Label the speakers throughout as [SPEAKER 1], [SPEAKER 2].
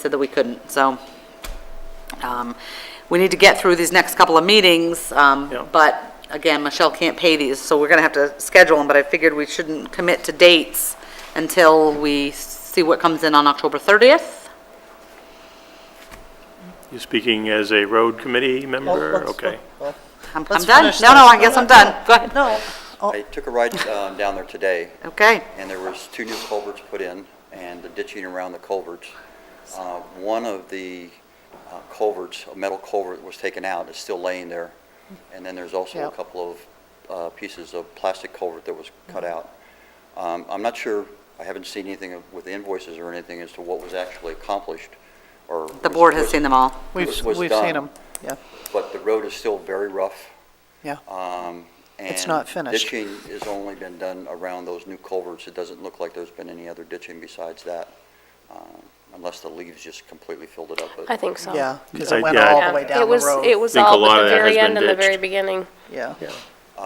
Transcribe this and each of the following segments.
[SPEAKER 1] said that we couldn't, so. um, We need to get through these next couple of meetings, um,
[SPEAKER 2] Yeah.
[SPEAKER 1] but again, Michelle can't pay these, so we're gonna have to schedule them, but I figured we shouldn't commit to dates until we see what comes in on October 30th.
[SPEAKER 2] You're speaking as a road committee
[SPEAKER 3] Oh,
[SPEAKER 2] member? Okay.
[SPEAKER 1] I'm I'm
[SPEAKER 3] Let's
[SPEAKER 1] done.
[SPEAKER 3] finish
[SPEAKER 1] No, no,
[SPEAKER 3] this.
[SPEAKER 1] I guess I'm done. Go ahead.
[SPEAKER 3] No,
[SPEAKER 4] I took a ride um, down there today,
[SPEAKER 1] Okay,
[SPEAKER 4] and there was two new culverts put in, and the ditching around the culverts. Uh, One of the uh, culverts, a metal culvert was taken out, it's still laying there. And then there's also a
[SPEAKER 3] Yep.
[SPEAKER 4] couple of uh, pieces of plastic culvert that was cut
[SPEAKER 1] Mm-hmm.
[SPEAKER 4] out. Um, I'm not sure, I haven't seen anything of- with invoices or anything as to what was actually accomplished, or.
[SPEAKER 1] the
[SPEAKER 4] was-
[SPEAKER 1] board has
[SPEAKER 4] was-
[SPEAKER 1] seen them all.
[SPEAKER 3] we've,
[SPEAKER 4] was- was
[SPEAKER 3] we've
[SPEAKER 4] done.
[SPEAKER 3] seen them, yeah,
[SPEAKER 4] But the road is still very rough.
[SPEAKER 3] yeah.
[SPEAKER 4] Um,
[SPEAKER 3] It's not finished.
[SPEAKER 4] And ditching has only been done around those new culverts. It doesn't look like there's been any other ditching besides that, um, unless the leaves just completely filled it up.
[SPEAKER 5] I
[SPEAKER 4] But
[SPEAKER 5] think so.
[SPEAKER 3] Yeah, because
[SPEAKER 2] I-
[SPEAKER 3] it went
[SPEAKER 2] yeah,
[SPEAKER 3] all
[SPEAKER 5] Yeah.
[SPEAKER 3] the way
[SPEAKER 5] It
[SPEAKER 3] down the
[SPEAKER 5] was- It
[SPEAKER 3] road,
[SPEAKER 5] was
[SPEAKER 2] Think a
[SPEAKER 5] all
[SPEAKER 2] lot
[SPEAKER 5] at
[SPEAKER 2] of
[SPEAKER 5] the
[SPEAKER 2] that has
[SPEAKER 5] very
[SPEAKER 2] been
[SPEAKER 5] end and the
[SPEAKER 2] ditched.
[SPEAKER 5] very beginning.
[SPEAKER 3] yeah.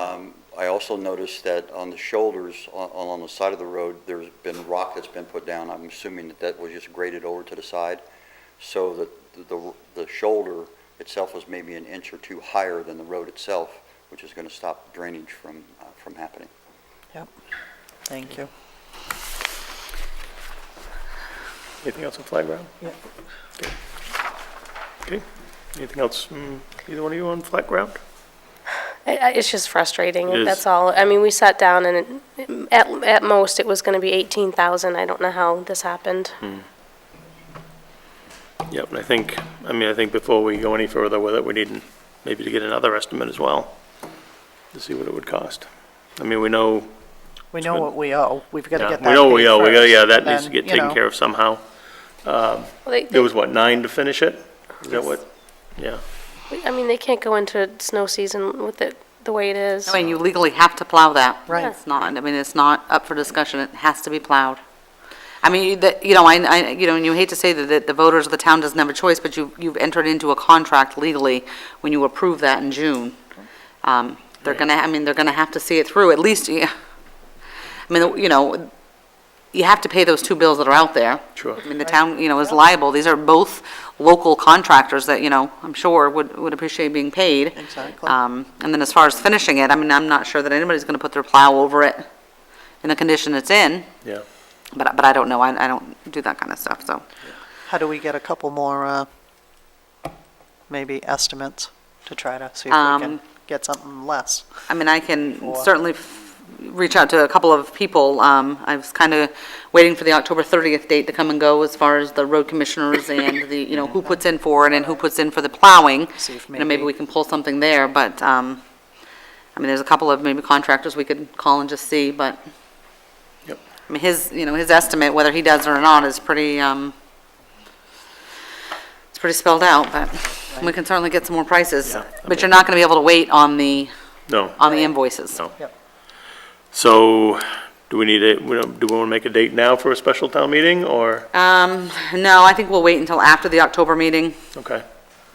[SPEAKER 4] um, I also noticed that on the shoulders, a- along the side of the road, there's been rock that's been put down. I'm assuming that that was just graded over to the side, so that the, the shoulder itself was maybe an inch or two higher than the road itself, which is going to stop drainage from, uh, from happening.
[SPEAKER 3] Thank you.
[SPEAKER 2] Anything else on flag ground?
[SPEAKER 3] Yeah.
[SPEAKER 2] Okay. Okay. Anything else from either one of you on flag ground?
[SPEAKER 5] I- I- It's just frustrating,
[SPEAKER 2] It is.
[SPEAKER 5] that's all. I mean, we sat down and it- at, at most, it was going to be 18,000. I don't know how this happened.
[SPEAKER 2] Hmm. Yep, and I think, I mean, I think before we go any further with it, we need maybe to get another estimate as well, to see what it would cost. I mean, we know,
[SPEAKER 3] We know what we owe, we've got to
[SPEAKER 2] yeah,
[SPEAKER 3] get that
[SPEAKER 2] we know we
[SPEAKER 3] paid
[SPEAKER 2] owe, we gotta,
[SPEAKER 3] first,
[SPEAKER 2] yeah, that
[SPEAKER 3] and
[SPEAKER 2] needs to
[SPEAKER 3] then,
[SPEAKER 2] get
[SPEAKER 3] you
[SPEAKER 2] taken
[SPEAKER 3] know,
[SPEAKER 2] care of somehow.
[SPEAKER 5] Well, they-
[SPEAKER 2] There was, what, nine to finish it? Is that what? Yeah.
[SPEAKER 5] I mean, they can't go into snow season with it the way it is.
[SPEAKER 1] I mean, you legally have to plow that.
[SPEAKER 3] Right.
[SPEAKER 1] It's not, I mean, it's not up for discussion, it has to be plowed. I mean, you- that, you know, I, I, you know, and you hate to say that, that the voters of the town doesn't have a choice, but you, you've entered into a contract legally when you approve that in June. Um, they're gonna, I mean, they're gonna have to see it through, at least, yeah. I mean, you know, you have to pay those two bills that are out there.
[SPEAKER 2] Sure.
[SPEAKER 1] I mean, the town, you know, is liable, these are both local contractors that, you know, I'm sure would, would appreciate being paid.
[SPEAKER 3] Exactly.
[SPEAKER 1] Um, And then as far as finishing it, I mean, I'm not sure that anybody's going to put their plow over it in the condition it's in,
[SPEAKER 2] Yeah.
[SPEAKER 1] but, but I don't know, I, I don't do that kind of stuff, so.
[SPEAKER 3] How do we get a couple more, uh, maybe estimates to try to see if we
[SPEAKER 1] Um,
[SPEAKER 3] can get something less?
[SPEAKER 1] I mean, I can
[SPEAKER 3] Sure.
[SPEAKER 1] certainly f- reach out to a couple of people. Um, I was kind of waiting for the October 30th date to come and go as far as the road commissioners and the, you know, who puts in for it and who puts in for the plowing.
[SPEAKER 3] See if
[SPEAKER 1] You know, maybe
[SPEAKER 3] maybe-
[SPEAKER 1] we can pull something there, but, um, I mean, there's a couple of maybe contractors we could call and just see, but.
[SPEAKER 2] Yep.
[SPEAKER 1] I mean, his, you know, his estimate, whether he does or not, is pretty, um, it's pretty spelled out, but we can certainly get some more prices.
[SPEAKER 2] Yeah, I
[SPEAKER 1] But you're not going to be able to wait on the,
[SPEAKER 2] No.
[SPEAKER 1] on the invoices.
[SPEAKER 2] No.
[SPEAKER 3] Yep.
[SPEAKER 2] So, do we need a, we don't- do we want to make a date now for a special town meeting, or,
[SPEAKER 1] Um, no, I think we'll wait until after the October meeting,
[SPEAKER 2] okay?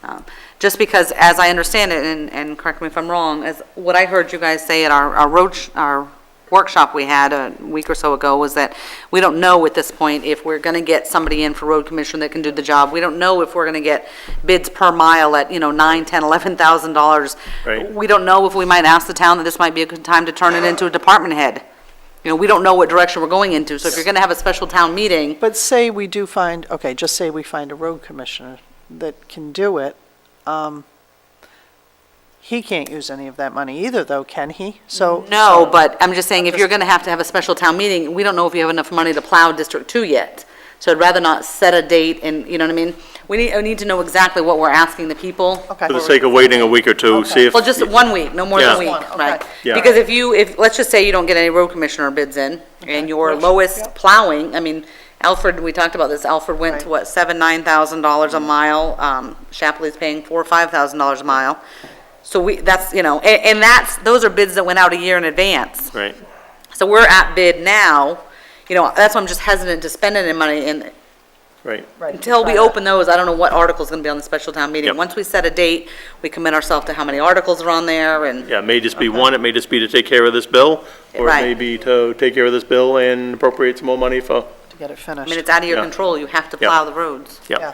[SPEAKER 1] um, just because, as I understand it, and, and correct me if I'm wrong, as what I heard you guys say at our, our road, sh- our workshop we had a week or so ago was that we don't know at this point if we're gonna get somebody in for road commission that can do the job. We don't know if we're gonna get bids per mile at, you know, nine, ten, eleven thousand dollars.
[SPEAKER 2] Right.
[SPEAKER 1] We don't know if we might ask the town that this might be a good time to turn it into a department head. You know, we don't know what direction we're going into, so if you're gonna have a special town meeting,
[SPEAKER 3] But say we do find, okay, just say we find a road commissioner that can do it, um, he can't use any of that money either, though, can he? So.
[SPEAKER 1] No,
[SPEAKER 3] so-
[SPEAKER 1] but I'm just saying, if you're going to have to have a special town meeting, we don't know if you have enough money to plow District Two yet. So I'd rather not set a date and, you know what I mean? We need, I need to know exactly what we're asking the people.
[SPEAKER 3] Okay.
[SPEAKER 2] For the sake of waiting a week or two, see if.
[SPEAKER 1] Well, just one week, no more than a
[SPEAKER 2] Yeah.
[SPEAKER 1] week,
[SPEAKER 3] Just one,
[SPEAKER 1] right?
[SPEAKER 3] okay.
[SPEAKER 2] Yeah.
[SPEAKER 1] Because if you, if, let's just say you don't get any road commissioner bids in, and your lowest plowing, I mean, Alfred, we talked about this, Alfred went to
[SPEAKER 3] Right. Mm.
[SPEAKER 1] what, seven, nine thousand dollars a mile, um, Shapley's paying four, five thousand dollars a mile. So we, that's, you know, and, and that's, those are bids that went out a year in advance.
[SPEAKER 2] Right,
[SPEAKER 1] So we're at bid now, you know, that's why I'm just hesitant to spend any money, and
[SPEAKER 2] right.
[SPEAKER 3] Right,
[SPEAKER 1] until we
[SPEAKER 3] try that.
[SPEAKER 1] open those, I don't know what article's gonna be on the special town meeting.
[SPEAKER 2] Yep.
[SPEAKER 1] Once we set a date, we commit ourselves to how many articles are on there, and,
[SPEAKER 2] Yeah, it may just be one, it may just be to take care of this bill, or it may
[SPEAKER 1] Right.
[SPEAKER 2] be to take care of this bill and appropriate some more money for
[SPEAKER 3] get it
[SPEAKER 1] I mean,
[SPEAKER 3] finished.
[SPEAKER 1] it's out of your
[SPEAKER 2] Yeah.
[SPEAKER 1] control, you have to
[SPEAKER 2] Yeah.
[SPEAKER 1] plow the roads.
[SPEAKER 2] Yep.
[SPEAKER 3] Yeah.